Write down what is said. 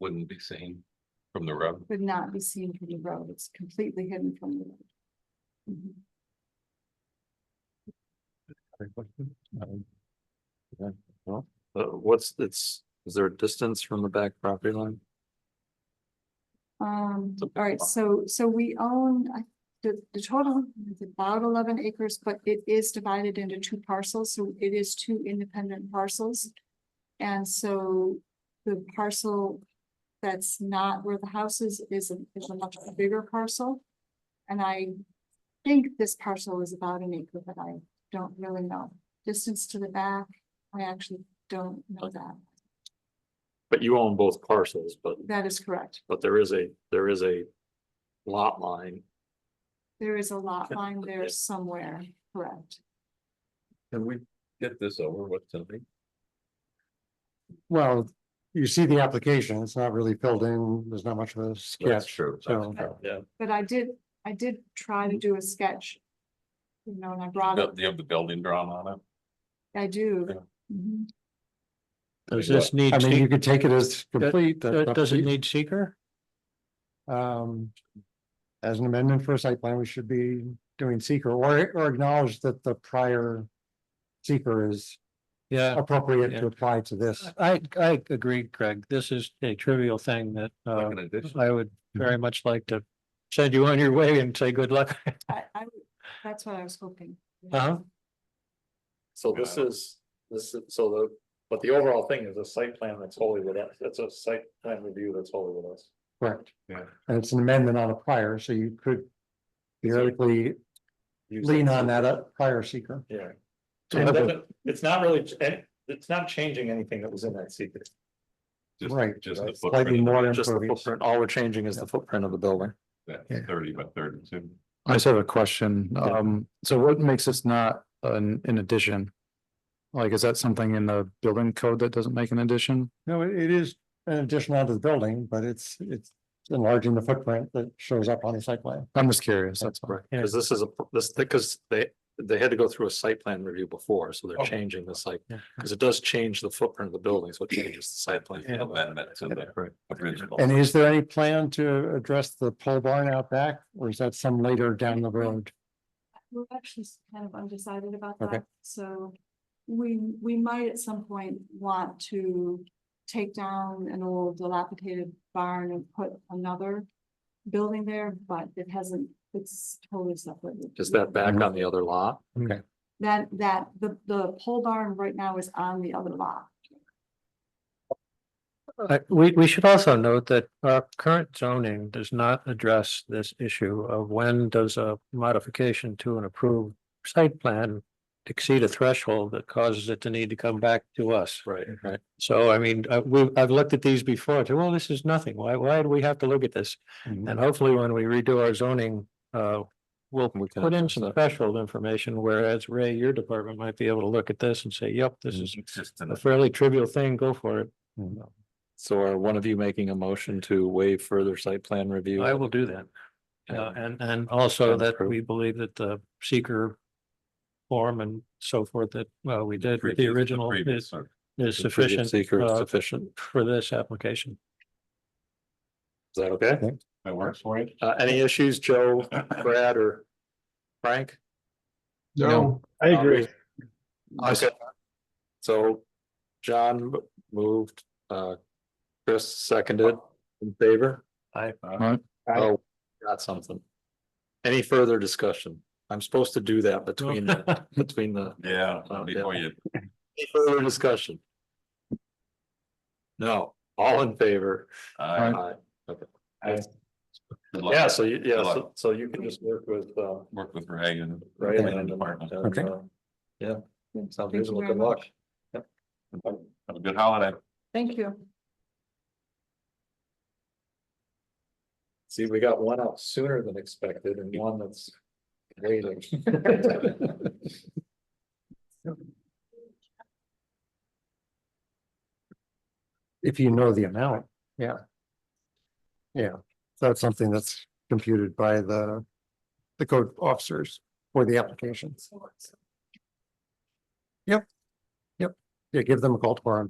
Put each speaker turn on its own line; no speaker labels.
wouldn't be seen from the road.
would not be seen from the road. It's completely hidden from the road. Mhm.
Uh, what's, it's, is there a distance from the back property line?
Um,
It's a big
all right,
lot.
Um, so, so we own, I, the, the total is about eleven acres, but it is divided into two parcels, so it is two independent parcels. And so the parcel that's not where the house is, is a, is a much bigger parcel. And I think this parcel is about an acre, but I don't really know. Distance to the back, I actually don't know that.
But you own both parcels, but,
That is correct.
but there is a, there is a lot line.
There is a lot
Yeah.
line there somewhere, correct?
Can we get this over with tonight?
Well, you see the application, it's not really filled in, there's not much of a sketch.
true.
so-
Yeah.
But I did, I did try to do a sketch. You know, and I brought
Do
it,
you have the building drawn on it?
I do.
Yeah.
Mhm.
Does
Yeah.
this need,
I mean, you
seek-
could take it as complete. that's
uh,
up
does
to
it
you.
need seeker?
Um, as an amendment for a site plan, we should be doing seeker or, or acknowledge that the prior seeker is
Yeah,
appropriate
Yeah.
to apply to this.
I, I agree, Craig. This is a trivial thing that, uh,
Like an addition?
I would very much like to send you on your way and say good luck.
I, I, would- that's what I was hoping.
Uh-huh.
So this is, this is, so the, but the overall thing is a site plan that's wholly with us. That's a site plan review that's wholly with us.
Correct.
Yeah.
And it's an amendment on a prior, so you could theoretically lean on that uh, prior seeker.
Yeah.
So
And it
have a-
doesn't- It's not really, ch- eh, it's not changing anything that was in that secret.
Just-
Right,
Just the
right, slightly
footprint,
more
Just the
impervious.
footprint. All we're changing is the footprint of the building.
that
yeah.
thirty by thirty-two.
I just have a question.
Yeah.
Um, so what makes this not an, an addition? Like, is that something in the building code that doesn't make an addition?
No, it it is an addition onto the building, but it's, it's enlarging the footprint that shows up on the site plan.
I'm just curious, that's all.
Cause this is a, this, because they, they had to go through a site plan review before, so they're
Oh.
changing the site.
Yeah.
Cause it does change the footprint of the building, so it changes the site plan.
Amendment to the original.
And is there any plan to address the pole barn out back, or is that some later down the road?
We're actually s- kind of undecided about
Okay.
that, so we, we might at some point want to take down an old dilapidated barn and put another building there, but it hasn't, it's totally separate.
Is that
Mm-hmm.
back on the other lot?
That, that, the, the pole barn right now is on the other lot.
I we, we should also note that our current zoning does not address this issue of when does a modification to an approved site plan exceed a threshold that causes it to need to come back to us.
Right, right.
So I mean, I, we, I've looked at these before, too, well, this is nothing. Why, why do we have to look at this? And hopefully when we redo our zoning, uh, we'll
We can
put in
address
some
that.
threshold information, whereas Ray, your department might be able to look at this and say, yep, this is
It's just
a
an-
fairly trivial thing, go for it.
So are one of you making a motion to waive further site plan review?
I will do that. Uh,
And-
and, and also
And
that
approve.
we believe that the seeker form and so forth that, well, we did with the
previous-
original
previous
is,
one.
is
The previous
sufficient
Seeker is
uh,
sufficient.
for this application.
Is that okay?
That works for you?
Uh, any issues, Joe, Brad or Frank?
No.
I agree.
I s-
So John m- moved, uh, Chris seconded in favor.
Alright.
Oh, got something. Any further discussion? I'm supposed to do that between, the between the,
Yeah,
Oh, yeah.
before you,
any further discussion? No, all in favor?
I,
Aye.
good luck.
Yeah, so you, yeah,
Good luck.
so, so you can just work with, uh,
work with Ray and.
Ray
planning
and,
Department.
and,
Okay.
uh, yeah, sounds
Thank you
reasonable.
very
Good luck.
much.
Have a good holiday.
Thank you.
See, we got one out sooner than expected and one that's waiting.
If you know the amount, yeah. Yeah, that's something that's computed by the, the code officers for the applications. Yep. Yep, yeah, give them a call tomorrow and